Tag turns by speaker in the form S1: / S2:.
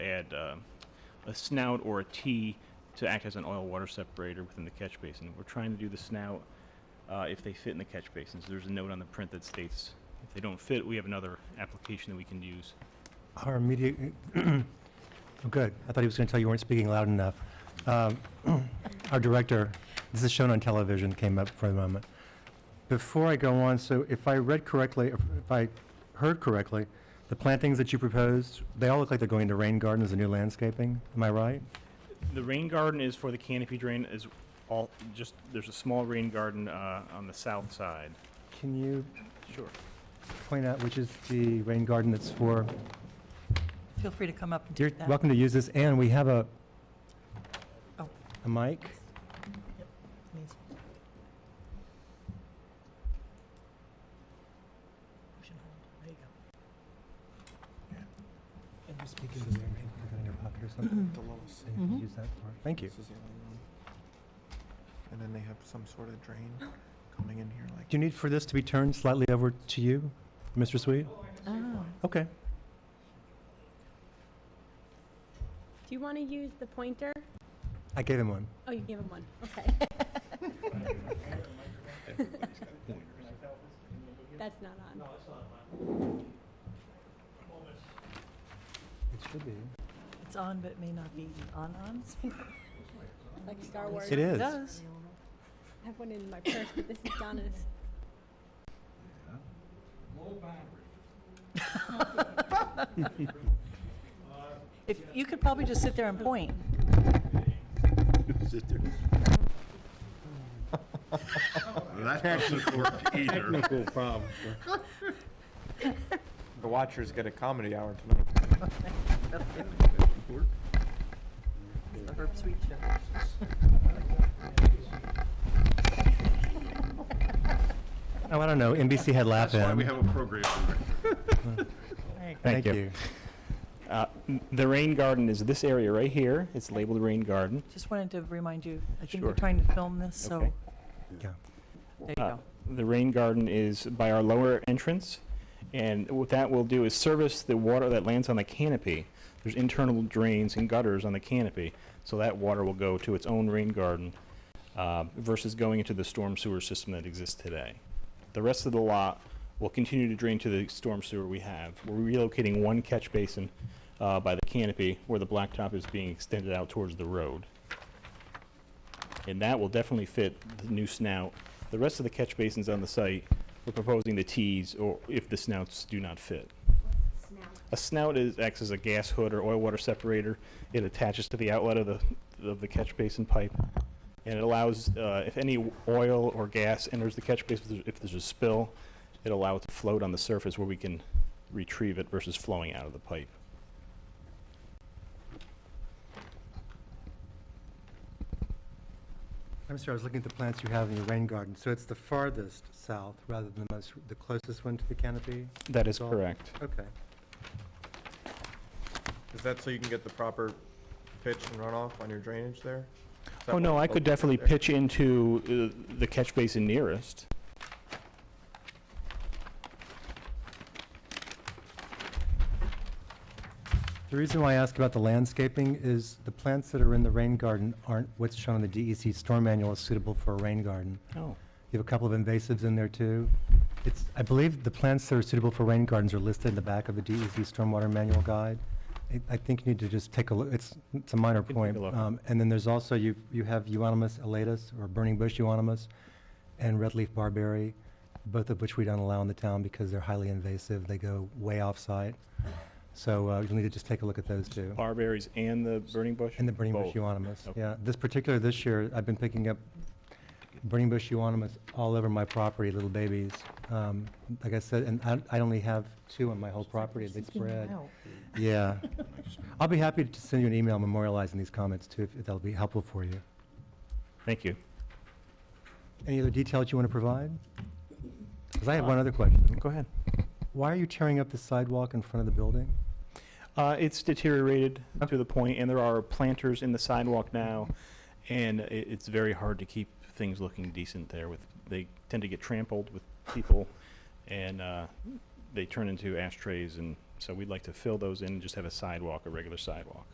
S1: had uh, a snout or a T to act as an oil water separator within the catch basin. We're trying to do the snout uh, if they fit in the catch basins. There's a note on the print that states if they don't fit, we have another application that we can use.
S2: Our immediate, oh, good. I thought he was going to tell you weren't speaking loud enough. Um, Our director, this is shown on television, came up for a moment. Before I go on, so if I read correctly, if if I heard correctly, the plantings that you proposed, they all look like they're going to rain gardens and new landscaping. Am I right?
S1: The rain garden is for the canopy drain. Is all just there's a small rain garden uh, on the south side.
S2: Can you
S1: Sure.
S2: point out which is the rain garden that's for?
S3: Feel free to come up and do
S2: You're
S3: that.
S2: welcome to use this, and we have a,
S3: Oh.
S2: a mic.
S3: Please. Push and hold. There you go.
S2: Put it in your pocket or something.
S4: The lowest.
S2: So you can use that for- Thank you.
S4: This is the only one. And then they have some sort of drain coming in here like.
S2: Do you need for this to be turned slightly over to you, Mr. Sweet?
S3: Oh.
S2: Okay.
S5: Do you want to use the pointer?
S2: I gave him one.
S5: Oh, you gave him one. Okay. That's not on.
S2: It should be.
S3: It's on, but it may not be on on.
S5: Like Star Wars.
S2: It is.
S3: does.
S5: I have one in my purse, but this is Donna's.
S3: If, you could probably just sit there and point.
S4: Oh,
S6: That doesn't work either.
S4: The Watchers get a comedy hour tonight.
S3: The Herb Sweet
S2: Oh, I don't know. NBC had laugh
S6: That's why
S2: in.
S6: we have a program.
S2: Thank,
S1: Thank you. Uh, n- the rain garden is this area right here. It's labeled rain garden.
S3: Just wanted to remind you, I think we're
S1: Sure.
S3: trying to film this, so
S1: Okay.
S2: Yeah.
S3: there you
S1: Uh,
S3: go.
S1: The rain garden is by our lower entrance, and what that will do is service the water that lands on the canopy. There's internal drains and gutters on the canopy, so that water will go to its own rain garden uh, versus going into the storm sewer system that exists today. The rest of the lot will continue to drain to the storm sewer we have. We're relocating one catch basin uh, by the canopy where the blacktop is being extended out towards the road and that will definitely fit the new snout. The rest of the catch basins on the site, we're proposing the Ts, or if the snouts do not fit. A snout is, acts as a gas hood or oil water separator. It attaches to the outlet of the, of the catch basin pipe, and it allows, uh, if any oil or gas enters the catch basin, if there's a spill, it allows it to float on the surface where we can retrieve it versus flowing out of the pipe.
S2: I'm sorry, I was looking at the plants you have in your rain garden. So it's the farthest south rather than the most, the closest one to the canopy?
S1: That is
S2: That's all.
S1: correct.
S2: Okay.
S4: Is that so you can get the proper pitch and runoff on your drainage there? Is that
S1: Oh, no,
S4: what
S1: I
S4: the
S1: could
S4: locals
S1: definitely
S4: did there?
S1: pitch into uh, the catch basin nearest.
S2: The reason why I ask about the landscaping is the plants that are in the rain garden aren't what's shown in the DEC storm manual as suitable for a rain garden.
S1: Oh.
S2: You have a couple of invasives in there too. It's, I believe the plants that are suitable for rain gardens are listed in the back of the DEC Stormwater Manual Guide. I- I think you need to just take a look, it's, it's a minor
S1: take a
S2: point.
S1: look.
S2: Um, And then there's also, you, you have Euonymus elatus, or burning bush euonymus, and red leaf barberry, both of which we don't allow in the town because they're highly invasive, they go way off-site. So uh, you'll need to just take a look at those too.
S1: Barberries and the burning bush?
S2: And the burning bush
S1: Both.
S2: euonymus,
S1: Okay.
S2: yeah. This particular, this year, I've been picking up burning bush euonymus all over my property, little babies. Um, Like I said, and I, I only have two on my whole property, they spread. Yeah. I'll be happy to send you an email memorializing these comments too, if that'll be helpful for you.
S1: Thank you.
S2: Any other details you want to provide? Because I have one other question.
S1: Go ahead.
S2: Why are you tearing up the sidewalk in front of the building?
S1: Uh, it's deteriorated to the point, and there are planters in the sidewalk now, and i it's very hard to keep things looking decent there with, they tend to get trampled with people, and, uh, they turn into ashtrays, and so we'd like to fill those in and just have a sidewalk, a regular sidewalk.